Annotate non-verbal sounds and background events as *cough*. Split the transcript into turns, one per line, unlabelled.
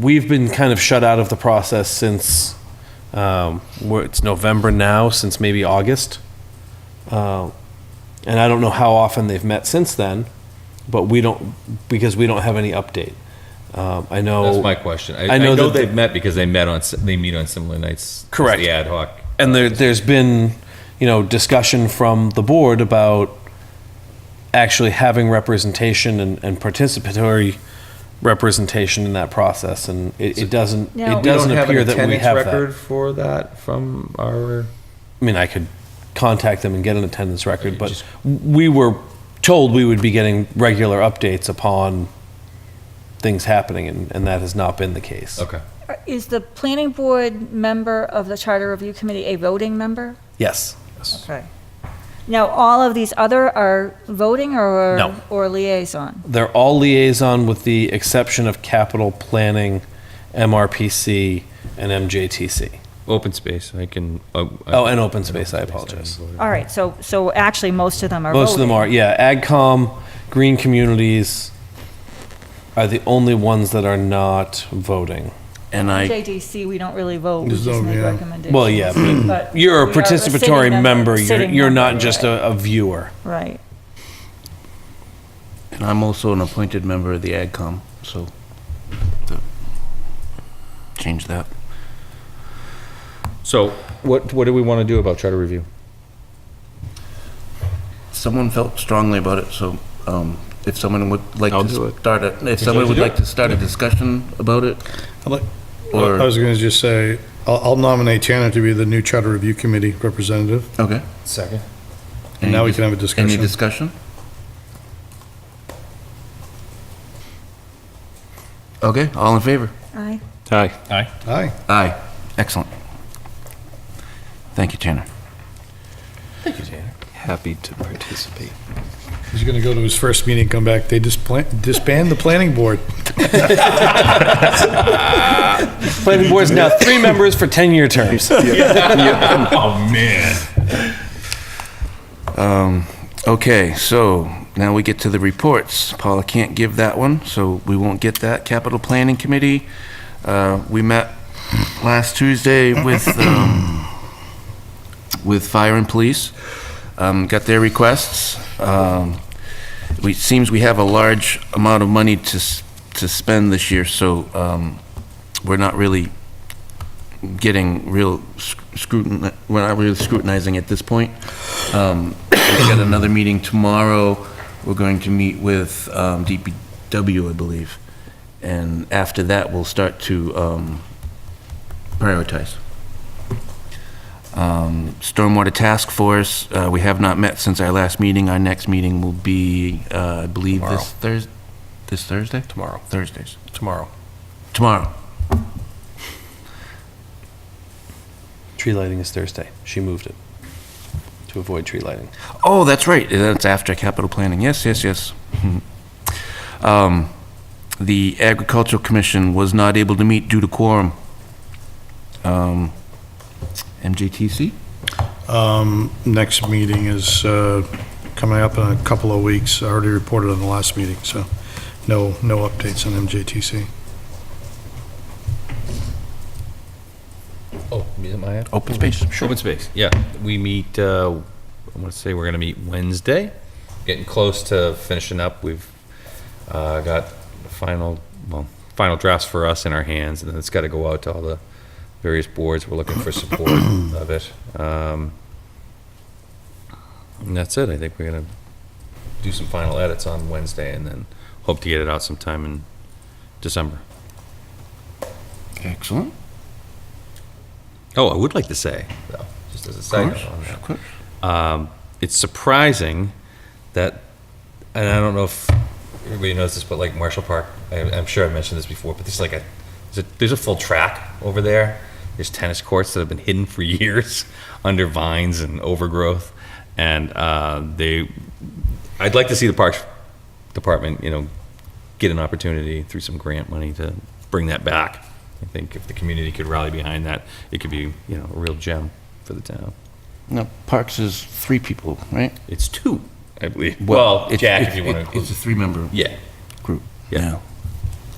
we've been kind of shut out of the process since, um, we're- it's November now, since maybe August. Uh, And I don't know how often they've met since then, but we don't, because we don't have any update. Um, I know.
That's my question. I,
I
I
know
know,
that-
they've met because they met on s- they meet on similar nights. as
Correct.
The ad hoc.
and there, there's been, you know, discussion from the board about actually having representation and, and participatory representation in that process, and it, it doesn't,
Now-
it doesn't
we don't
appear
have an
that we
attendance
have
record
that.
for that from our.
I mean, I could contact them and get an attendance record, but
Just-
we were told we would be getting regular updates upon things happening, and, and that has not been the case.
Okay.
Is the planning board member of the Charter Review Committee a voting member?
Yes.
Okay. Now, all of these other are voting or?
No.
Or liaison?
They're all liaison with the exception of capital planning, MRPC, and MJTC.
Open space. I can. Uh,
Oh, and open space, I apologize.
All right, so, so actually, most of them are voting.
Most of them are, yeah. AgCom, Green Communities are the only ones that are not voting.
And I,
JDC, we don't really vote, we
Just
just
don't,
make
yeah.
recommendations.
Well, yeah, but
But
you're a
we are sitting
participatory member. You're,
sitting
you're not
member,
just
right,
a, a viewer.
Right.
and I'm also an appointed member of the AgCom, so the- change that.
So what what do we want to do about charter review?
Someone felt strongly about it, so um, if someone would like
I'll do
to
it.
start a, if someone
to
would
do
like
it?
to start a discussion about it,
I'd like-
Or-
I was going to just say, I'll I'll nominate Tanner to be the new Charter Review Committee representative.
okay.
Second.
And now we can have a discussion.
Any discussion? Okay, all in favor?
Aye.
Hi. Hi.
Aye.
Aye. Excellent. Thank you, Tanner.
Happy to participate.
He's going to go to his first meeting, come back, they displa- disband the planning board.
Planning board's
*laughs*
now three members for 10-year terms.
oh man.
Um, okay, so now we get to the reports. Paula can't give that one, so we won't get that. Capital Planning Committee, uh, we met last Tuesday with, um, with fire and police, um, got their requests. Um, we, it seems we have a large amount of money to, s- to spend this year, so, um, we're not really getting real scrutin, we're not really scrutinizing at this point. Um, We've got another meeting tomorrow. We're going to meet with um, DPW, I believe. And after that, we'll start to um, prioritize. Um, Stormwater Task Force, uh, we have not met since our last meeting. Our next meeting will be, uh, I believe, this Thursday, this Thursday? Tomorrow. Thursdays.
Tomorrow.
Tomorrow.
Tree lighting is Thursday. She moved it to avoid tree lighting.
Oh, that's right. That's after capital planning. Yes, yes, yes. Mhm. Um, The Agricultural Commission was not able to meet due to quorum. Um, MJTC?
Um, Next meeting is uh, coming up in a couple of weeks. I already reported on the last meeting, so no, no updates on MJTC.
Oh, is it my ad?
Open space?
Open space. Yeah, we meet. Uh, I want to say we're going to meet Wednesday. Getting close to finishing up. We've uh, got the final, well, final drafts for us in our hands, and then it's got to go out to all the various boards. We're looking for *coughs* support of it. Um, and that's it. I think we're going to do some final edits on Wednesday, and then hope to get it out sometime in December.
Excellent.
Oh, I would like to say, though, just as a side note on that.
Of course.
Um, it's surprising that, and I don't know if everybody knows this, but like Marshall Park, I, I'm sure I mentioned this before, but there's like a there's, a there's a full track over there. There's tennis courts that have been hidden for *laughs* years under vines and overgrowth, and uh, they. I'd like to see the parks department, you know, get an opportunity through some grant money to bring that back. I think if the community could rally behind that, it could be you know a real gem for the town.
Now, Parks is three people, right?
It's two, I believe. Well,
it-
Jack,
it-
if you want
it-
to include.
It's a three-member
Yeah.
group.
Yeah.
now.